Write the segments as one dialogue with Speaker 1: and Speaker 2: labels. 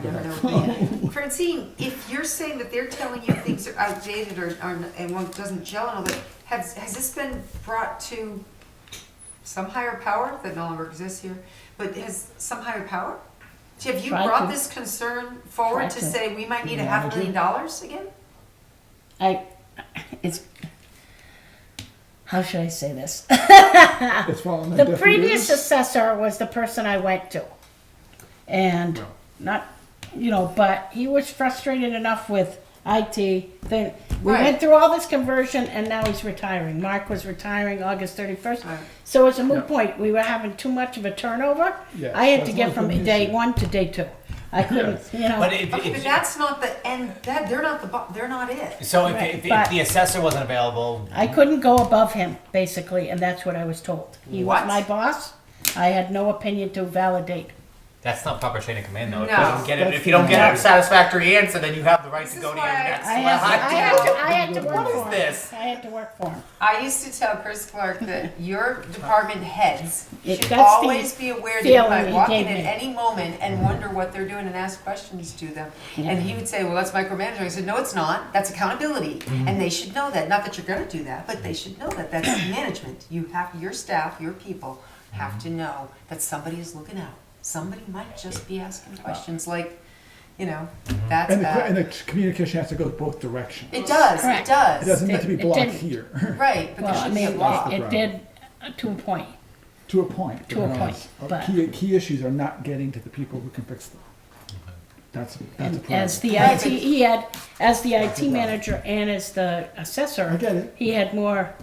Speaker 1: Francine, if you're saying that they're telling you things are outdated or, or, and one doesn't gel and all that, has, has this been brought to some higher power that no longer exists here, but has some higher power? Have you
Speaker 2: Tried
Speaker 1: brought
Speaker 2: to-
Speaker 1: this concern forward
Speaker 2: tried
Speaker 1: to
Speaker 2: to
Speaker 1: say we might need a half
Speaker 2: manage it.
Speaker 1: million dollars again?
Speaker 2: I, it's, how should I say this?
Speaker 3: It's following that
Speaker 2: The previous assessor was the person I went to. And not, you know, but he was frustrated enough with IT that we
Speaker 1: Right.
Speaker 2: went through all this conversion and now he's retiring. Mark was retiring August thirty-first.
Speaker 1: Right.
Speaker 2: So it's a moot
Speaker 3: Yeah.
Speaker 2: point. We were having too much of a turnover.
Speaker 3: Yes,
Speaker 2: I had to
Speaker 3: that's
Speaker 2: get
Speaker 3: not
Speaker 2: from
Speaker 3: an
Speaker 2: day
Speaker 3: issue.
Speaker 2: one to day two. I couldn't, you
Speaker 4: But
Speaker 2: know,
Speaker 4: if,
Speaker 1: Oh. Okay, but
Speaker 4: if,
Speaker 1: that's not the end, that, they're not the, bo- they're not it.
Speaker 4: so if,
Speaker 2: Right,
Speaker 4: if, if
Speaker 2: but-
Speaker 4: the assessor wasn't available,
Speaker 2: I couldn't go above him, basically, and that's what I was told. He was
Speaker 1: What?
Speaker 2: my boss. I had no opinion to validate.
Speaker 4: that's not proper chain of command, though. If
Speaker 1: No.
Speaker 4: you don't get it, if you
Speaker 3: That's
Speaker 4: don't get a
Speaker 3: not-
Speaker 4: satisfactory answer, then you have the right
Speaker 1: This
Speaker 4: to
Speaker 1: is
Speaker 4: go to
Speaker 1: why
Speaker 4: your
Speaker 1: I-
Speaker 4: next
Speaker 2: I had, I had
Speaker 4: level.
Speaker 2: to, I had to work
Speaker 3: What
Speaker 2: for
Speaker 3: is
Speaker 2: him.
Speaker 4: this?
Speaker 2: I had to work for him.
Speaker 1: I used to tell Chris Clark that your department heads
Speaker 2: It-
Speaker 1: should
Speaker 2: that's the
Speaker 1: always be aware that you
Speaker 2: feeling
Speaker 1: might
Speaker 2: he
Speaker 1: walk in
Speaker 2: gave
Speaker 1: at
Speaker 2: me.
Speaker 1: any moment and wonder what they're doing and ask questions to them.
Speaker 2: Yeah.
Speaker 1: And he would say, well, that's micromanaging. I said, no, it's not. That's accountability. And they should know that. Not that you're gonna do that, but they should know that. That's management. You have, your staff, your people have to know that somebody is looking out. Somebody might just be asking questions like, you know, that's
Speaker 3: And the, and
Speaker 1: that.
Speaker 3: the communication has to go both directions.
Speaker 1: It does, it
Speaker 2: Correct.
Speaker 3: It
Speaker 1: does.
Speaker 3: doesn't need to be
Speaker 2: It- it
Speaker 3: blocked
Speaker 2: didn't.
Speaker 3: here,
Speaker 1: Right, but there
Speaker 2: Well, I
Speaker 1: should be
Speaker 2: mean,
Speaker 1: a law.
Speaker 2: it- it did uh, to a point.
Speaker 3: to a point.
Speaker 2: To a
Speaker 3: because
Speaker 2: point,
Speaker 3: our
Speaker 2: but-
Speaker 3: Key, key issues are not getting to the people who can fix them. That's, that's a
Speaker 2: And
Speaker 3: problem.
Speaker 2: as the
Speaker 1: Right,
Speaker 2: IT,
Speaker 1: but-
Speaker 2: he had, as the IT manager and as the assessor,
Speaker 3: I get it.
Speaker 2: he had more,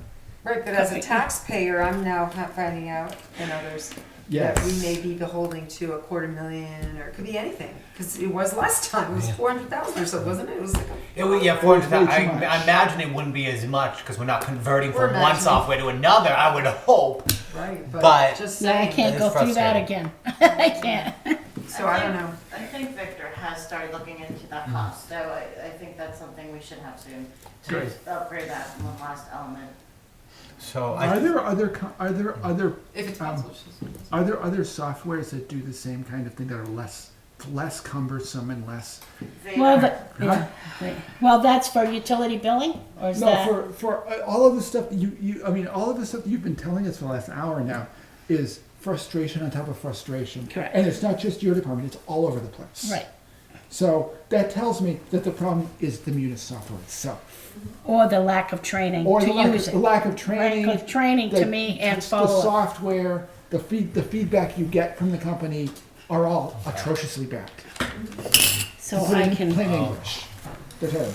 Speaker 1: Right, but as a
Speaker 2: Copy.
Speaker 1: taxpayer, I'm now ha- finding out, and others, that we
Speaker 3: Yes.
Speaker 1: may be beholding to a quarter million, or it could be anything, because it was last time, it was
Speaker 4: Yeah.
Speaker 1: four hundred thousand or so, wasn't it? It was like,
Speaker 4: It would, yeah, four hundred thousand.
Speaker 3: Way
Speaker 4: I,
Speaker 3: too much.
Speaker 4: I imagine it wouldn't be as much because we're not converting
Speaker 1: We're
Speaker 4: from one
Speaker 1: imagining.
Speaker 4: software to another. I would hope.
Speaker 1: a- right, but
Speaker 4: But-
Speaker 1: just
Speaker 2: I
Speaker 1: saying,
Speaker 2: can't
Speaker 4: is
Speaker 2: go through that
Speaker 4: frustrating.
Speaker 2: again. I can't.
Speaker 1: so I don't know.
Speaker 5: I think Victor has started looking into that cost, so I, I think that's something we should have soon, to
Speaker 4: Great.
Speaker 5: upgrade that one last element.
Speaker 4: So
Speaker 3: Are
Speaker 4: I,
Speaker 3: there other, co- are there other,
Speaker 1: Mm-hmm. If it's
Speaker 3: Um,
Speaker 1: possible, it's just-
Speaker 3: are there other softwares that do the same kind of thing that are less, less cumbersome and less?
Speaker 5: They-
Speaker 2: Well, but,
Speaker 3: Huh?
Speaker 2: well, that's for utility billing or is
Speaker 3: No,
Speaker 2: that?
Speaker 3: for, for uh, all of the stuff that you, you, I mean, all of the stuff that you've been telling us for the last hour now is frustration on top of frustration.
Speaker 2: Correct.
Speaker 3: And it's not just your department, it's all over the place.
Speaker 2: Right.
Speaker 3: So that tells me that the problem is the Munis software itself.
Speaker 2: Or the lack of training
Speaker 3: Or
Speaker 2: to
Speaker 3: the lack,
Speaker 2: use
Speaker 3: of,
Speaker 2: it.
Speaker 3: the lack of training.
Speaker 2: Lack of training to
Speaker 3: the-
Speaker 2: me and
Speaker 3: the
Speaker 2: follow-up.
Speaker 3: software, the feed, the feedback you get from the company are all atrociously bad.
Speaker 2: So
Speaker 3: Put it
Speaker 2: I
Speaker 3: in
Speaker 2: can.
Speaker 3: Oh,
Speaker 4: Oh.
Speaker 3: plain English. They're terrible.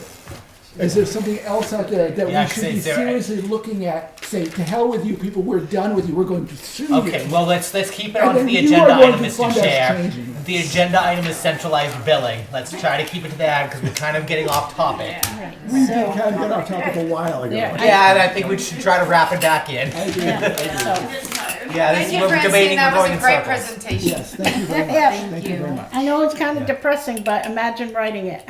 Speaker 3: Is there something else out there that
Speaker 4: Yeah,
Speaker 3: we should be
Speaker 4: is there-
Speaker 3: seriously looking at? Say, to hell with you people, we're done with you, we're going to sue you.
Speaker 4: okay. Well, let's let's keep it
Speaker 3: And
Speaker 4: onto
Speaker 3: then
Speaker 4: the
Speaker 3: you
Speaker 4: agenda
Speaker 3: are going
Speaker 4: item,
Speaker 3: to
Speaker 4: Mr.
Speaker 3: fund us
Speaker 4: Chair.
Speaker 3: changing this.
Speaker 4: The agenda item is centralized billing. Let's try to keep it to that because we're kind of getting off topic.
Speaker 2: Right,
Speaker 3: We did
Speaker 2: so-
Speaker 3: kind of get off topic a while ago.
Speaker 2: There, I-
Speaker 4: Yeah, and I think we should try to wrap it back in.
Speaker 2: yeah, so-
Speaker 4: Yeah, this
Speaker 1: Thank
Speaker 4: is
Speaker 1: you,
Speaker 4: what we're
Speaker 1: Francine,
Speaker 4: debating.
Speaker 1: that
Speaker 4: we're
Speaker 1: was
Speaker 4: going
Speaker 1: a
Speaker 4: in
Speaker 1: great
Speaker 4: circles.
Speaker 1: presentation.
Speaker 3: Yes, thank you very much.
Speaker 2: Yeah.
Speaker 3: Thank you very much.
Speaker 2: I know it's kind of depressing, but imagine writing it.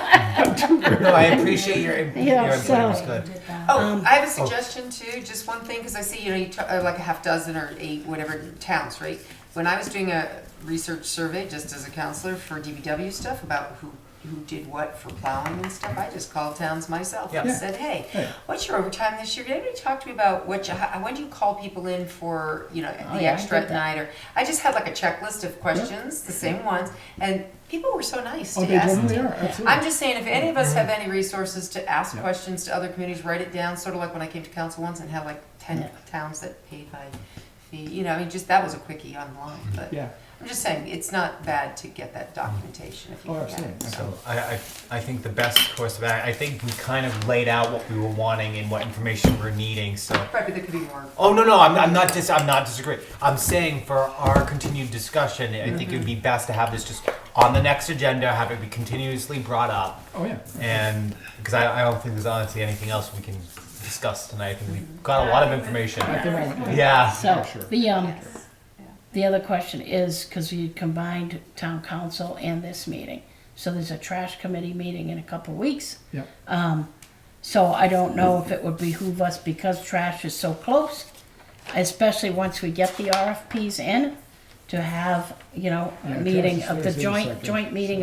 Speaker 4: No, I appreciate your, your
Speaker 2: Yeah,
Speaker 4: input.
Speaker 2: so-
Speaker 4: It was good.
Speaker 1: Oh, I have a suggestion too, just one thing, because I see, you know, you ta- uh, like a half dozen or eight, whatever towns, right? When I was doing a research survey, just as a counselor for DBW stuff about who, who did what for plowing and stuff, I just called towns myself and
Speaker 4: Yeah.
Speaker 1: said, hey,
Speaker 3: Yeah.
Speaker 1: what's your overtime this year? Did anybody talk to me about what you, how, when do you call people in for, you know,
Speaker 2: I
Speaker 1: the
Speaker 2: did
Speaker 1: extra at
Speaker 2: that.
Speaker 1: night? Or, I just had like a checklist of questions, the same ones, and people were so nice
Speaker 3: Oh,
Speaker 1: to
Speaker 3: they
Speaker 1: ask.
Speaker 3: totally are, absolutely.
Speaker 1: I'm just saying, if any of us have
Speaker 3: Mm-hmm.
Speaker 1: any resources to ask questions to other communities, write it down, sort of like when I came to council once and had like ten
Speaker 2: Yeah.
Speaker 1: towns that paid by fee, you know, I mean, just, that was a quickie online, but
Speaker 3: Yeah,
Speaker 1: I'm just saying, it's not bad to get that documentation if you
Speaker 3: oh,
Speaker 1: can get
Speaker 3: absolutely.
Speaker 1: it.
Speaker 4: So I, I, I think the best course of action, I think we kind of laid out what we were wanting and what information we're needing, so.
Speaker 1: Probably there could be more.
Speaker 4: Oh, no, no, I'm, I'm not dis, I'm not disagreeing. I'm saying for our continued discussion, I think it would
Speaker 2: Mm-hmm.
Speaker 4: be best to have this just on the next agenda, have it be continuously brought up.
Speaker 3: Oh, yeah.
Speaker 4: And, because I, I don't think there's honestly anything else we can discuss tonight. I think we've got a lot of information.
Speaker 3: At the moment, yeah.
Speaker 4: Yeah.
Speaker 2: So,
Speaker 3: Sure.
Speaker 2: the, um,
Speaker 1: Yeah.
Speaker 2: the other question is, because you combined town council and this meeting. So there's a trash committee meeting in a couple weeks.
Speaker 3: yeah.
Speaker 2: So I don't know if it would behoove us, because trash is so close, especially once we get the RFPs in, to have, you know, a
Speaker 3: Yeah, Josh
Speaker 2: meeting
Speaker 3: is
Speaker 2: of
Speaker 3: here,
Speaker 2: the
Speaker 3: he's in a
Speaker 2: joint,
Speaker 3: second.
Speaker 2: joint meeting